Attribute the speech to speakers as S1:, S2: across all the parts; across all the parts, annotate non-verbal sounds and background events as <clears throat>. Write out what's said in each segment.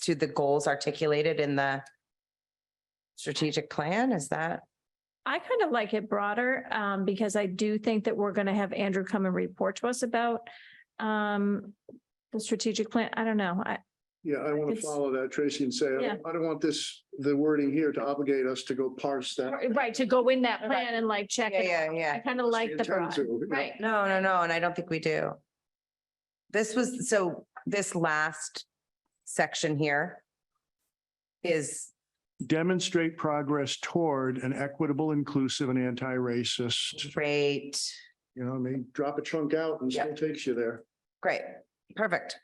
S1: to the goals articulated in the strategic plan? Is that?
S2: I kind of like it broader, um, because I do think that we're gonna have Andrew come and report to us about, um, the strategic plan. I don't know. I,
S3: Yeah, I want to
S2: It's-
S3: follow that, Tracy, and say, I
S2: Yeah.
S3: don't- I don't want this, the wording here to obligate us to go parse that.
S2: right, to go in that
S1: Right.
S2: plan and like check it out. I
S1: yeah.
S2: kind of like the
S3: Intend
S2: broad,
S3: to, yeah.
S2: right?
S1: No, no, no, and I don't think we do. This was, so this last section here is,
S3: Demonstrate progress toward an equitable, inclusive and anti-racist,
S1: great,
S3: you know, I mean, drop a chunk out and still takes you there.
S1: great, perfect.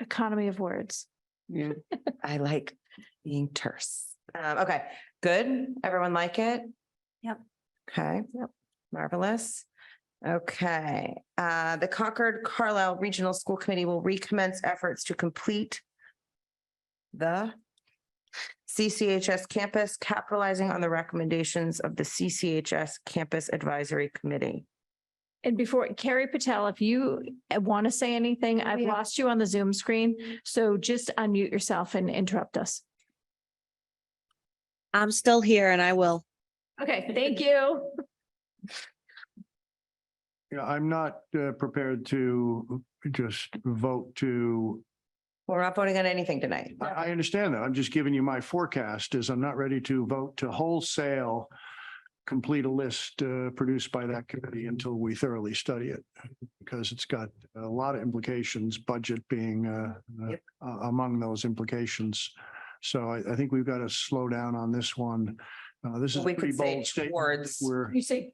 S2: Economy of words.
S3: Yeah.
S1: I like being terse. Um, okay, good. Everyone like it?
S2: Yep.
S1: Okay.
S2: Yep.
S1: Marvelous. Okay, uh, the Concord Carlisle Regional School Committee will recommence efforts to complete the CCHS campus, capitalizing on the recommendations of the CCHS Campus Advisory Committee.
S2: And before, Carrie Patel, if you want to say anything, I've
S1: Yeah.
S2: lost you on the Zoom screen. So just unmute yourself and interrupt us.
S4: I'm still here and I will.
S2: Okay, thank you.
S3: Yeah, I'm not uh, prepared to just vote to,
S1: We're not voting on anything tonight.
S3: I, I understand that. I'm just giving you my forecast is I'm not ready to vote to wholesale complete a list uh, produced by that committee until we thoroughly study it. Because it's got a lot of implications, budget being uh, uh,
S1: Yep.
S3: a- among those implications. So I, I think we've got to slow down on this one. Uh, This is a
S1: We
S3: pretty
S1: could say
S3: bold statement.
S1: towards-
S3: We're.
S2: You say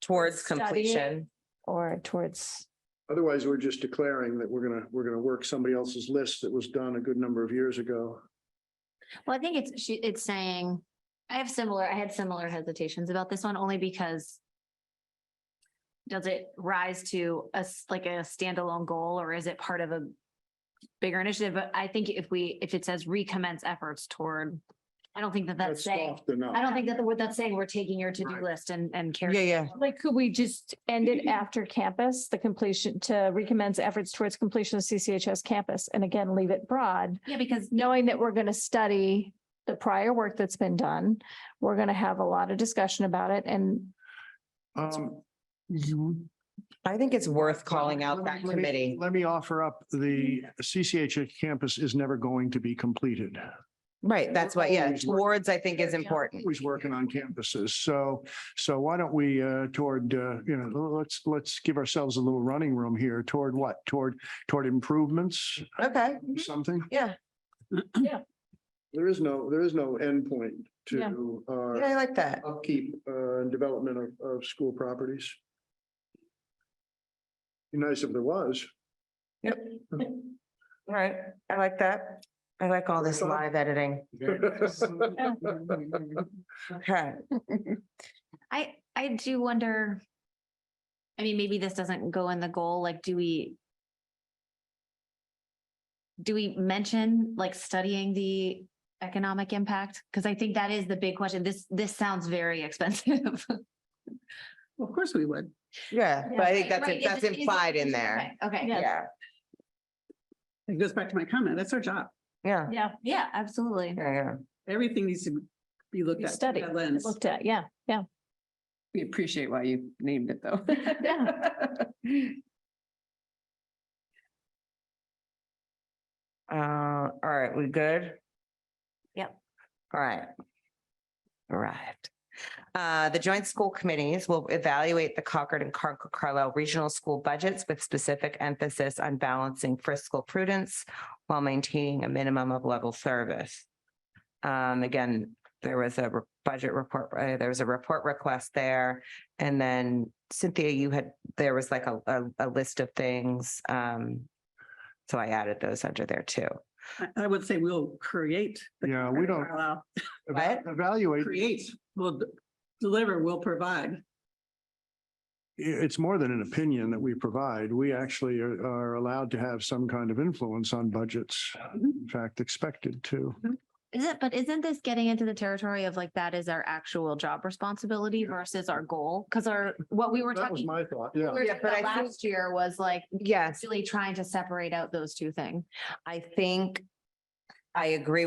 S1: Towards
S2: Study it.
S1: completion.
S2: or towards,
S3: Otherwise, we're just declaring that we're gonna, we're gonna work somebody else's list that was done a good number of years ago.
S5: Well, I think it's, she, it's saying, I have similar, I had similar hesitations about this one only because does it rise to a s like a standalone goal or is it part of a bigger initiative? But I think if we, if it says recommence efforts toward, I don't think that that's saying,
S3: soft enough.
S5: I don't think that the word that's saying, we're taking your to-do
S3: Right.
S5: list and, and
S1: Yeah,
S5: carrying.
S1: yeah.
S2: like, could we just end
S5: Mm-hmm.
S2: it after campus, the completion to recommends efforts towards completion of CCHS campus? And again, leave it broad,
S5: Yeah, because
S2: knowing that we're going to study the prior work that's been done. We're going to have a lot of discussion about it and
S3: Um, you.
S1: I think it's worth calling out
S3: Let me-
S1: that
S3: let me-
S1: committee.
S3: Let me offer up, the CCH campus is never going to be completed.
S1: Right, that's why, yeah,
S3: Always work.
S1: towards, I think, is important.
S3: Always working on campuses. So, so why don't we, uh, toward, uh, you know, let's, let's give ourselves a little running room here toward what? Toward, toward improvements,
S1: Okay,
S3: something?
S1: Mm-hmm.
S3: <clears throat>
S1: yeah,
S3: There is no, there is no endpoint
S2: Yeah.
S3: to,
S1: yeah, I like that.
S3: upkeep uh, and development of, of school properties. Be nice if there was.
S1: Yep. All right, I like that. I like all this live editing. Okay,
S5: I, I do wonder. I mean, maybe this doesn't go in the goal, like, do we? Do we mention like studying the economic impact? Because I think that is the big question. This, this sounds very <laughs> expensive.
S6: Of course we would.
S1: yeah, but I think that's,
S5: Right, is
S1: that's
S5: it- is it-
S1: implied in there.
S5: Okay, Okay, yeah,
S1: Yeah,
S6: It goes back to my comment. That's our job.
S1: yeah,
S2: yeah,
S5: yeah, absolutely.
S1: yeah, yeah.
S6: Everything needs to be looked at. through
S2: study,
S6: that lens.
S2: looked at, yeah, yeah.
S7: We appreciate why you named it though.
S1: Uh, all right, we good?
S5: Yep.
S1: All right. All right. Uh, the joint school committees will evaluate the Concord and Car- Carlisle regional school budgets with specific emphasis on balancing fiscal prudence while maintaining a minimum of level service. Um, again, there was a re- budget report, uh, there was a report request there. And then Cynthia, you had, there was like a, a, a list of things, um, so I added those under there too.
S6: I- I would say we'll create. the
S3: Yeah, we don't-
S6: Carlisle-
S1: What?
S3: Evaluate, i-
S6: Create, we'll d- deliver, we'll provide.
S3: it's more than an opinion that we provide. We actually are, are allowed to have some kind of influence on budgets.
S6: Mm-hmm.
S3: In fact, expected to.
S5: Is it, but isn't this getting into the territory of like, that is our actual job responsibility versus our goal? Because our, what we were
S3: That was
S5: talking.
S3: my thought, yeah.
S5: we were
S1: Yeah,
S5: talking
S1: but
S5: about
S1: I think-
S5: Last year was like,
S1: Yes,
S5: really trying to separate out those two things.
S1: I think I agree with.